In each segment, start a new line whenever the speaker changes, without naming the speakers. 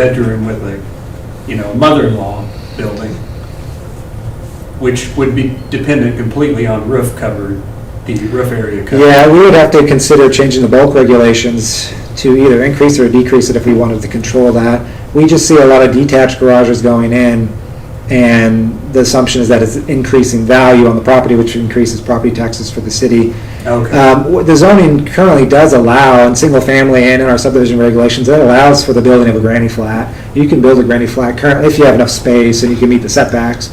bedroom with a, you know, mother-in-law building, which would be dependent completely on roof cover, the roof area cover.
Yeah, we would have to consider changing the bulk regulations to either increase or decrease it if we wanted to control that. We just see a lot of detached garages going in, and the assumption is that it's increasing value on the property, which increases property taxes for the city.
Okay,
Um, what The zoning currently does allow, in single-family and in our subdivision regulations, it allows for the building of a granny flat. You can build a granny flat currently if you have enough space and you can meet the setbacks.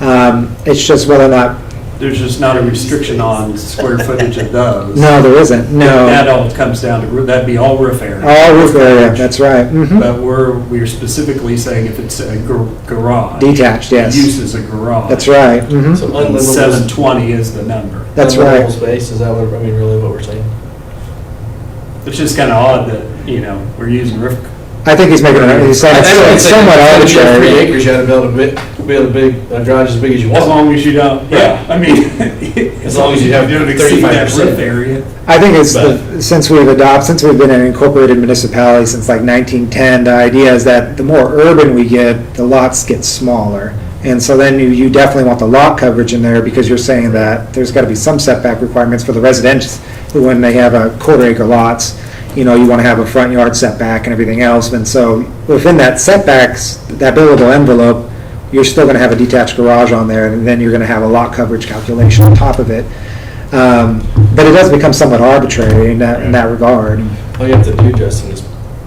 Um, It's just whether or not,
there's just not a restriction on square footage of those.
no, there isn't, no.
That all comes down to, roo- that'd be all roof
Oh,
area.
All roof area, that's right.
But
mhm.
we're, we're specifically saying if it's a gar- garage.
Detached, yes.
Used as a garage.
That's right. mhm.
So
And
unlivable.
Seven twenty is the number.
That's
unlivable
right.
Space, is that what, I mean, really what we're saying?
It's just kind of odd that, you know, we're using roof,
I think he's making, an- he's saying
I- I
it's
don't
it's
think
somewhat
that If you have three
arbitrary.
acres, you had to build a bit, build a big, a garage as big as you
as
want.
long as you don't, yeah, I mean. As
long as you have
don't exceed that
35%.
Roof area.
I think it's, the-
But-
since we've adopted, since we've been an incorporated municipality since like 1910, the idea is that the more urban we get, the lots get smaller. And so then you, you definitely want the lot coverage in there because you're saying that there's got to be some setback requirements for the residents who, when they have a quarter acre lots, you know, you want to have a front yard setback and everything else. And so within that setbacks, that billable envelope, you're still going to have a detached garage on there, and then you're going to have a lot coverage calculation on top of it. Um, But it does become somewhat arbitrary in that, in that regard.
All you have to do, Justin, is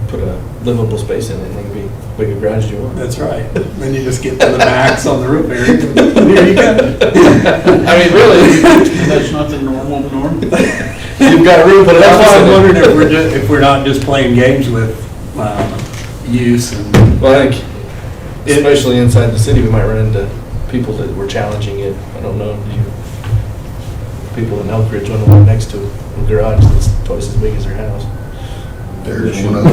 put a livable space in it, and it can be big a garage as you want.
That's right. Then you just get to the max on the roof area. There you go.
I mean, really,
That's not the normal norm?
you've got a room, put an
That's
office
why
in
I'm
it.
wondering if we're, ju- if we're not just playing games with, um, use and.
Well, I think,
It-
especially inside the city, we might run into people that were challenging it. I don't know, do you, people in Elk Ridge on the one next to a garage that's twice as big as their house.
There's one other.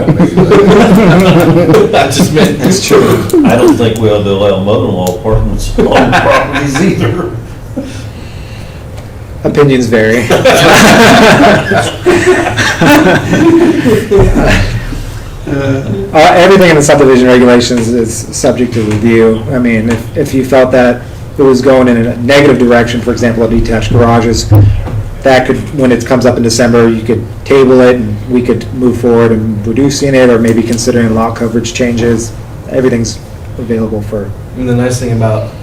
I just meant.
That's true.
I don't think we ought to allow mother-in-law apartments on properties either.
Opinions vary. Uh, Everything in the subdivision regulations is subject to review. I mean, if, if you felt that it was going in a negative direction, for example, of detached garages, that could, when it comes up in December, you could table it, and we could move forward and reducing it, or maybe considering lot coverage changes. Everything's available for,
And the nice thing about,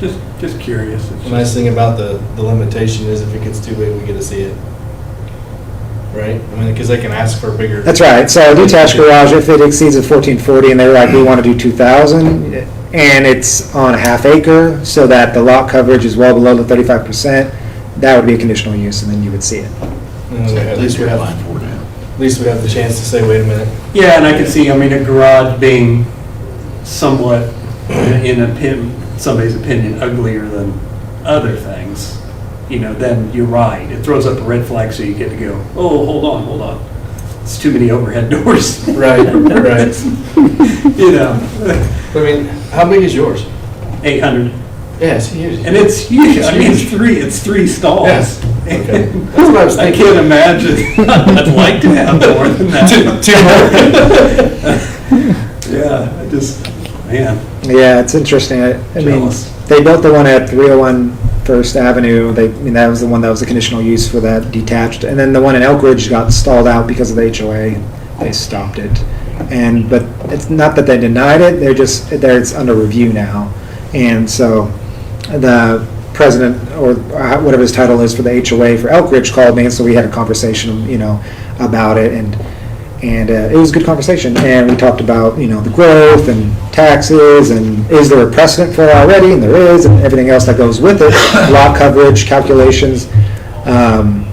Just, just curious. It's
the
just-
nice thing about the, the limitation is if it gets too big, we get to see it. Right? I mean, because they can ask for a bigger.
that's right, so a detached garage, if it exceeds a fourteen forty, and they're like, we want to do two thousand, and it's on a half acre, so that the lot coverage is well below the thirty-five percent, that would be a conditional use, and then you would see it.
And then At least we have, at least we have the chance to say, wait a minute,
Yeah, and I can see, I mean, a garage being somewhat, in a pin, somebody's opinion, uglier than other things, you know, then you're right. It throws up a red flag, so you get to go, oh, hold on, hold on. It's too many overhead doors.
Right, right.
You know,
I mean, how big is yours?
eight hundred,
Yeah, it's huge.
and it's huge, I mean, it's three, it's three stalls.
Yes, okay. That's what I was
I
thinking.
can't imagine, I'd like to have more than that. Yeah, I just, man.
Yeah, it's interesting. I, I mean,
Jealous.
they built the one at 301 First Avenue. They, I mean, that was the one that was the conditional use for that detached. And then the one in Elk Ridge got stalled out because of the HOA. and They stopped it. And, but it's not that they denied it, they're just, there, it's under review now. And so the president, or uh, whatever his title is for the HOA for Elk Ridge called me, and so we had a conversation, you know, about it. And and uh, it was a good conversation, and we talked about, you know, the growth and taxes, and is there a precedent for it already, and there is, and everything else that goes with it, lot coverage calculations. Um,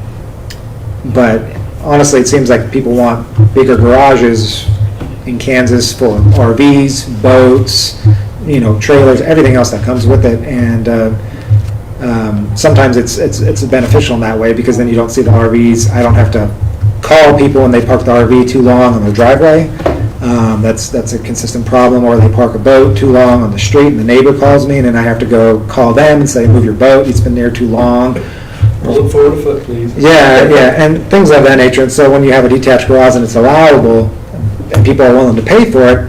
But honestly, it seems like people want bigger garages in Kansas for RVs, boats, you know, trailers, everything else that comes with it, and uh, um, sometimes it's, it's, it's beneficial in that way, because then you don't see the RVs, I don't have to call people when they park the RV too long on their driveway. Um, that's, that's a consistent problem, or they park a boat too long on the street, and the neighbor calls me, and then I have to go call them and say, move your boat, it's been there too long.
Pull it forward a foot, please.
Yeah, yeah, and things of that nature, and so when you have a detached garage and it's allowable, and people are willing to pay for it,